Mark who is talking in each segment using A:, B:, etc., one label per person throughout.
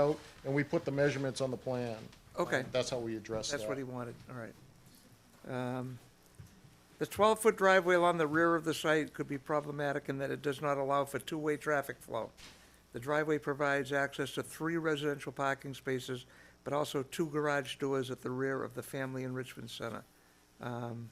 A: out, and we put the measurements on the plan.
B: Okay.
A: Uh, That's how we address that.
B: That's what he wanted, all right. Um, The 12-foot driveway along the rear of the site could be problematic in that it does not allow for two-way traffic flow. The driveway provides access to three residential parking spaces, but also two garage doors at the rear of the Family Enrichment Center. Um,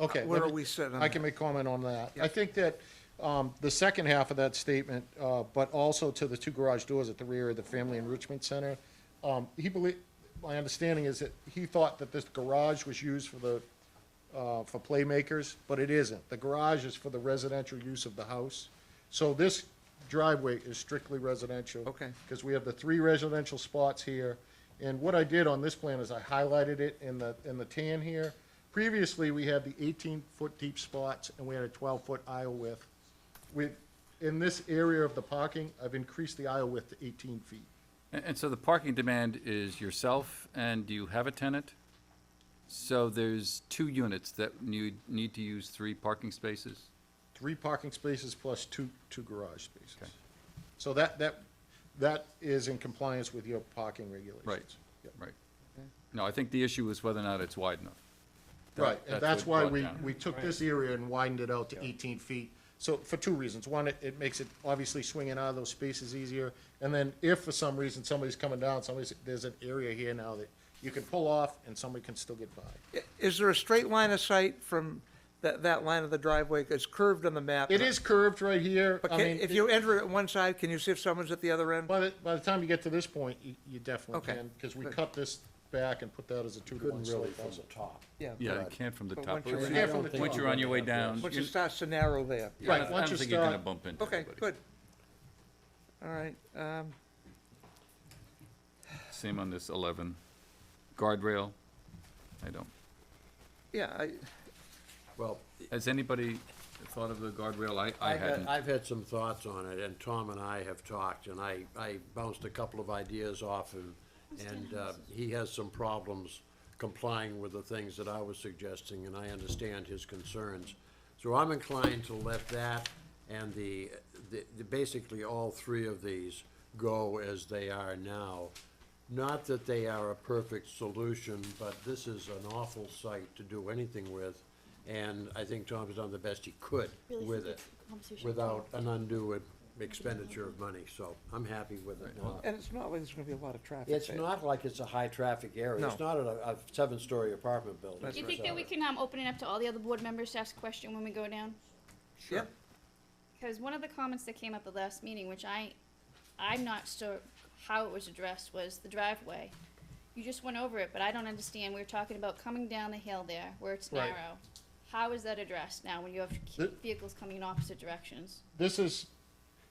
A: Okay.
B: Where
A: let
B: are
A: me-
B: we sitting on
A: I can
B: that?
A: make comment on that.
B: Yeah.
A: I think that um, the second half of that statement, uh, but also to the two garage doors at the rear of the Family Enrichment Center, um, he believe, my understanding is that he thought that this garage was used for the, uh, for playmakers, but it isn't. The garage is for the residential use of the house. So this driveway is strictly residential.
B: Okay.
A: Because we have the three residential spots here. And what I did on this plan is I highlighted it in the, in the tan here. Previously, we had the eighteen-foot deep spots and we had a twelve-foot aisle width. With, in this area of the parking, I've increased the aisle width to eighteen feet.
C: And and so the parking demand is yourself, and do you have a tenant? So there's two units that need, need to use three parking spaces?
A: Three parking spaces plus two, two garage spaces. So that, that, that is in compliance with your parking regulations. Yeah.
C: Right. No, I think the issue is whether or not it's wide enough. That-
A: Right, and that's why
C: what
A: we,
C: brought down.
A: we took this area and widened it out to eighteen feet. So, for two reasons. One, it, it makes it obviously swinging out of those spaces easier. And then if for some reason somebody's coming down, somebody's, there's an area here now that you can pull off and somebody can still get by.
B: i- Is there a straight line of sight from that, that line of the driveway? It's curved on the map.
A: It is curved right here.
B: But
A: I
B: can-
A: mean,
B: if
A: it-
B: you enter at one side, can you see if someone's at the other end?
A: by the, by the time you get to this point, you, you definitely
B: Okay.
A: can, because we
B: Good.
A: cut this back and put that as a two to one
D: Couldn't really
A: slope.
D: from the top.
C: Yeah, you can't from the
B: But
C: top.
B: once you're
C: Once
B: in-
C: you're-
A: Yeah, from the
C: Once you're on your way down.
B: Once
C: you're-
B: it starts to narrow there.
C: yeah, I
A: Right, once
C: don't-
A: you
C: I don't think you're gonna
A: start-
C: bump into
B: Okay,
C: anybody.
B: good. All right, um,
C: Same on this 11. Guardrail, I don't.
B: yeah, I,
D: Well,
C: Has anybody thought of the guardrail? I, I
D: I've had,
C: hadn't.
D: I've had some thoughts on it, and Tom and I have talked, and I, I bounced a couple of ideas off him, and, uh, he has some problems complying with the things that I was suggesting, and I understand his concerns. So I'm inclined to let that and the, the, the- basically all three of these go as they are now. Not that they are a perfect solution, but this is an awful site to do anything with, and I think Tom's done the best he could
E: Really
D: with
E: think
D: it,
E: it's a conversation.
D: without an undue expenditure of money, so I'm happy with it now.
B: and it's not like there's gonna be a lot of traffic there.
D: It's not like it's a high-traffic area, it's
B: No.
D: not a, a seven-story apartment building.
B: That's
E: Do you
B: right.
E: think that we can, um, open it up to all the other board members to ask a question when we go down?
B: Yep,
E: Because one of the comments that came up at last meeting, which I, I'm not sure how it was addressed, was the driveway. You just went over it, but I don't understand, we were talking about coming down the hill there, where it's
A: Right.
E: narrow. How is that addressed now, when you have
A: The-
E: vehicles coming in opposite directions?
A: this is,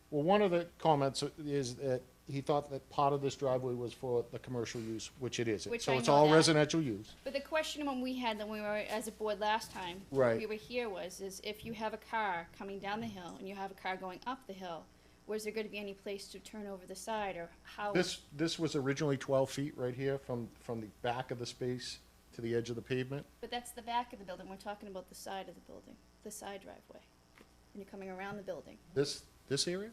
A: well, one of the comments is that he thought that part of this driveway was for the commercial use, which it isn't.
E: Which
A: So
E: I
A: it's
E: know
A: all
E: that.
A: residential use.
E: But the question when we had, when we were as a board last time,
A: Right.
E: we were here was, is if you have a car coming down the hill and you have a car going up the hill, was there gonna be any place to turn over the side or how?
A: This, this was originally twelve feet right here from, from the back of the space to the edge of the pavement.
E: But that's the back of the building, we're talking about the side of the building, the side driveway. And you're coming around the building.
A: This, this area?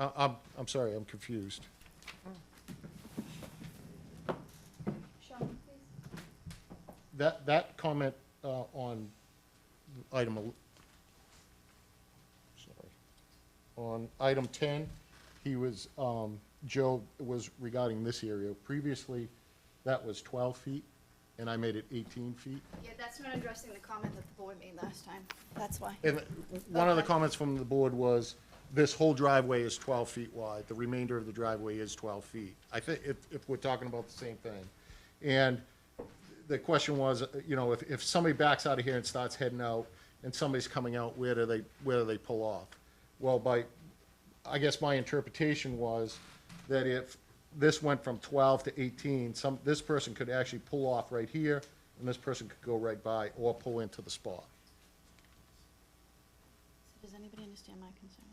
A: I, I'm, I'm sorry, I'm confused.
E: Sean, please.
A: That, that comment, uh, on item, el- sorry, on item ten, he was, um, Joe was regarding this area. Previously, that was twelve feet, and I made it eighteen feet.
E: Yeah, that's not addressing the comment that the board made last time, that's why.
A: And one of the
E: Okay.
A: comments from the board was, this whole driveway is twelve feet wide, the remainder of the driveway is twelve feet. I think, if, if we're talking about the same thing. And the question was, uh, you know, if, if somebody backs out of here and starts heading out, and somebody's coming out, where do they, where do they pull off? Well, by, I guess my interpretation was that if this went from twelve to eighteen, some, this person could actually pull off right here, and this person could go right by, or pull into the spot.
E: So Does anybody understand my concern?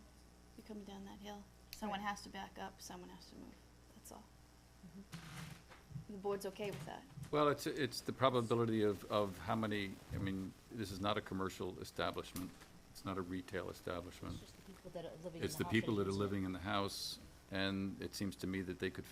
E: You come down that hill, someone has to back up, someone has to move, that's all. The board's okay with that?
C: Well, it's, it's the probability of, of how many, I mean, this is not a commercial establishment. It's not a retail establishment.
F: It's just the people that are living in the
C: It's the people that are
F: house
C: living in the house and it seems to me that they could fit